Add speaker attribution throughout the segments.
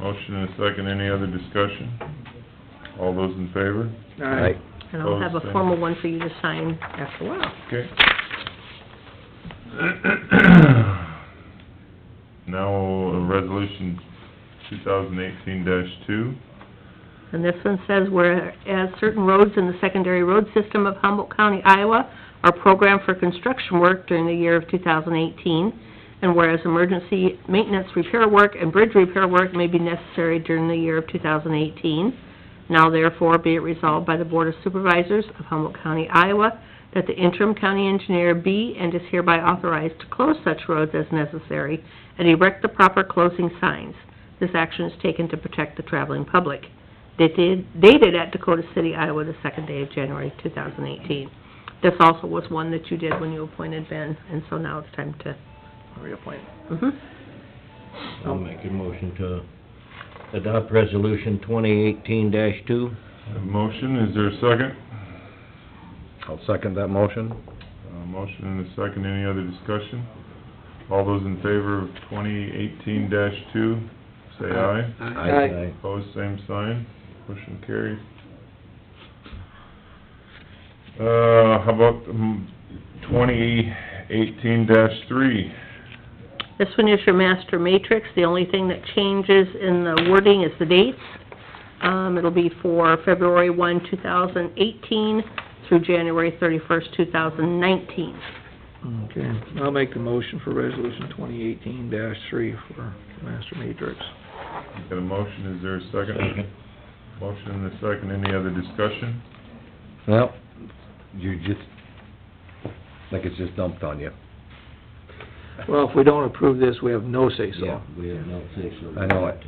Speaker 1: Motion and a second, any other discussion? All those in favor?
Speaker 2: Right.
Speaker 3: And I'll have
Speaker 1: Close,
Speaker 3: a
Speaker 1: uh,
Speaker 3: formal one for you to sign after a while.
Speaker 1: Okay. Now, uh, resolution two thousand eighteen two,
Speaker 3: And this one says, whereas certain roads in the secondary road system of Humboldt County, Iowa, are programmed for construction work during the year of 2018, and whereas emergency maintenance repair work and bridge repair work may be necessary during the year of 2018, now therefore be it resolved by the Board of Supervisors of Humboldt County, Iowa, that the interim county engineer be and is hereby authorized to close such roads as necessary and erect the proper closing signs. This action is taken to protect the traveling public dated dated at Dakota City, Iowa, the second day of January 2018. This also was one that you did when you appointed Ben, and so now it's time to,
Speaker 2: Reappoint.
Speaker 3: mhm.
Speaker 4: I'll make a motion to adopt resolution twenty eighteen two.
Speaker 1: Have a motion, is there a second?
Speaker 2: I'll second that motion.
Speaker 1: Uh, motion and a second, any other discussion? All those in favor of twenty eighteen two, say aye.
Speaker 4: Aye.
Speaker 1: Opposed, same sign, motion carries. Uh, how about twenty eighteen three?
Speaker 3: This one is your master matrix. The only thing that changes in the wording is the dates. Um, it'll be for February 1, 2018 through January 31st, 2019.
Speaker 5: Okay, I'll make the motion for resolution twenty eighteen three for master matrix.
Speaker 1: Got a motion, is there a second? Motion and a second, any other discussion?
Speaker 2: Well, you just, like it's just dumped on you.
Speaker 5: Well, if we don't approve this, we have no say-so.
Speaker 4: Yeah, we have no say so.
Speaker 2: I know it.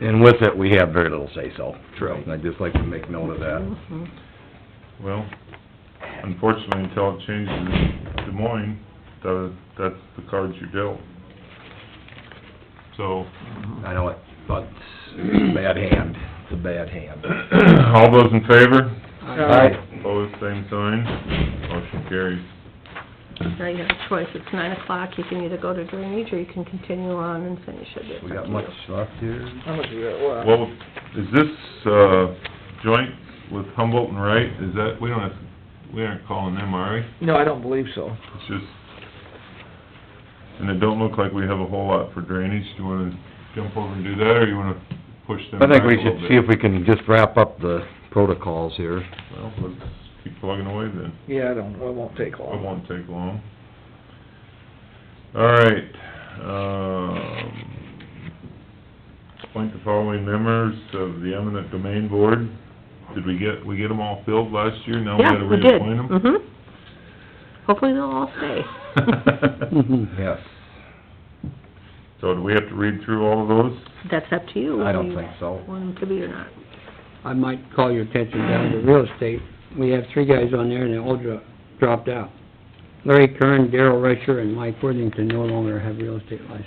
Speaker 2: And with it, we have very little say-so.
Speaker 5: True.
Speaker 2: And I'd just like to make note of that.
Speaker 3: Mhm.
Speaker 1: Well, unfortunately, until it changes in Des Moines, tha- that's the cards you're dealt. So,
Speaker 2: I know it, but it's a bad hand, it's a bad hand.
Speaker 1: all those in favor?
Speaker 2: Aye.
Speaker 1: Opposed, same sign, motion carries.
Speaker 3: Now you have a choice. It's 9 o'clock. You can either go to drainage or you can continue on and finish it. It's
Speaker 2: We
Speaker 3: up
Speaker 2: got
Speaker 3: to
Speaker 2: much
Speaker 3: you.
Speaker 2: left here?
Speaker 5: How much we got left?
Speaker 1: Well, is this, uh, joint with Humboldt and Wright, is that, we don't have, we aren't calling them, are we?
Speaker 5: No, I don't believe so.
Speaker 1: It's just, and it don't look like we have a whole lot for drainage. Do you wanna jump over and do that, or you wanna push them
Speaker 2: I
Speaker 1: back
Speaker 2: think
Speaker 1: a
Speaker 2: we
Speaker 1: little
Speaker 2: should
Speaker 1: bit?
Speaker 2: see if we can just wrap up the protocols here.
Speaker 1: Well, let's keep plugging away then.
Speaker 5: Yeah, I don't, it won't take
Speaker 1: It
Speaker 5: long.
Speaker 1: won't take long. All right, um, appoint the following members of the eminent domain board. Did we get, we get them all filled last year? Now we
Speaker 3: Yeah,
Speaker 1: gotta
Speaker 3: we did.
Speaker 1: reappoint them?
Speaker 3: Mhm. Hopefully they'll all stay. Mm-hmm.
Speaker 6: Mm-hmm.
Speaker 2: Yes,
Speaker 1: So do we have to read through all of those?
Speaker 3: That's up to you.
Speaker 2: I
Speaker 3: whether
Speaker 2: don't
Speaker 3: you
Speaker 2: think so.
Speaker 3: Want them to be or not.
Speaker 6: I might call your attention down to real estate. We have three guys on there and they all dro- dropped out. Larry Kern, Darrell Rusher, and Mike Worthington no longer have real estate license.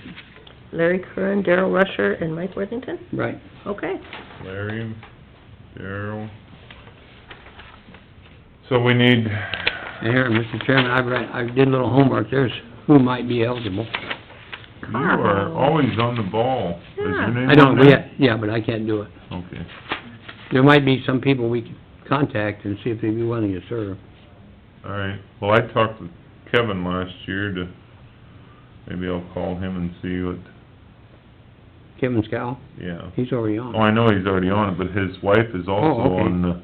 Speaker 3: Larry Curran, Darrell Rusher, and Mike Worthington?
Speaker 6: Right.
Speaker 3: Okay.
Speaker 1: Larry, Darrell. So we need,
Speaker 6: And here, Mr. Chairman, I read, I did a little homework. There's who might be eligible.
Speaker 1: you are
Speaker 3: Carl.
Speaker 1: always on the ball. Is your
Speaker 3: Yeah.
Speaker 1: name
Speaker 6: I don't,
Speaker 1: on
Speaker 6: we,
Speaker 1: there?
Speaker 6: yeah, but I can't do it.
Speaker 1: Okay.
Speaker 6: There might be some people we could contact and see if they'd be willing to serve.
Speaker 1: All right, well, I talked with Kevin last year to, maybe I'll call him and see what,
Speaker 6: Kevin Scow,
Speaker 1: yeah.
Speaker 6: he's already on.
Speaker 1: Oh, I know he's already on it, but his wife is also
Speaker 6: Oh, okay.
Speaker 1: on the,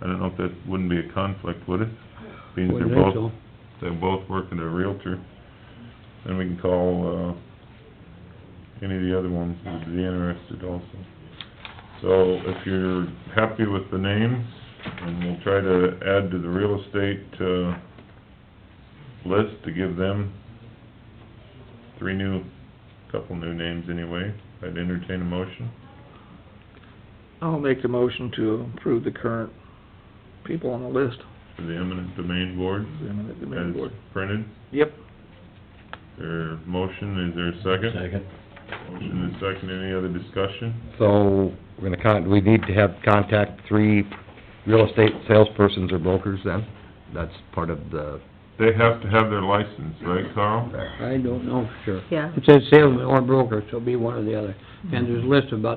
Speaker 1: I don't know if that wouldn't be a conflict, would it? Being they're
Speaker 6: Wouldn't think
Speaker 1: both,
Speaker 6: so.
Speaker 1: they both work at a Realtor. Then we can call, uh, any of the other ones who would be interested also. So if you're happy with the names, and we'll try to add to the real estate, uh, list to give them three new, couple new names anyway. I'd entertain a motion.
Speaker 5: I'll make the motion to approve the current people on the list,
Speaker 1: for the eminent domain board
Speaker 5: the eminent domain
Speaker 1: as
Speaker 5: board.
Speaker 1: printed.
Speaker 5: Yep.
Speaker 1: There, motion, is there a second?
Speaker 4: Second.
Speaker 1: Motion and second, any other discussion?
Speaker 2: So, we're gonna con, we need to have contact three real estate salespersons or brokers then? That's part of the,
Speaker 1: They have to have their license, right, Carl?
Speaker 6: I don't know for sure.
Speaker 3: Yeah.
Speaker 6: It says salesman or broker, so it'll be one or the other. And there's a list of about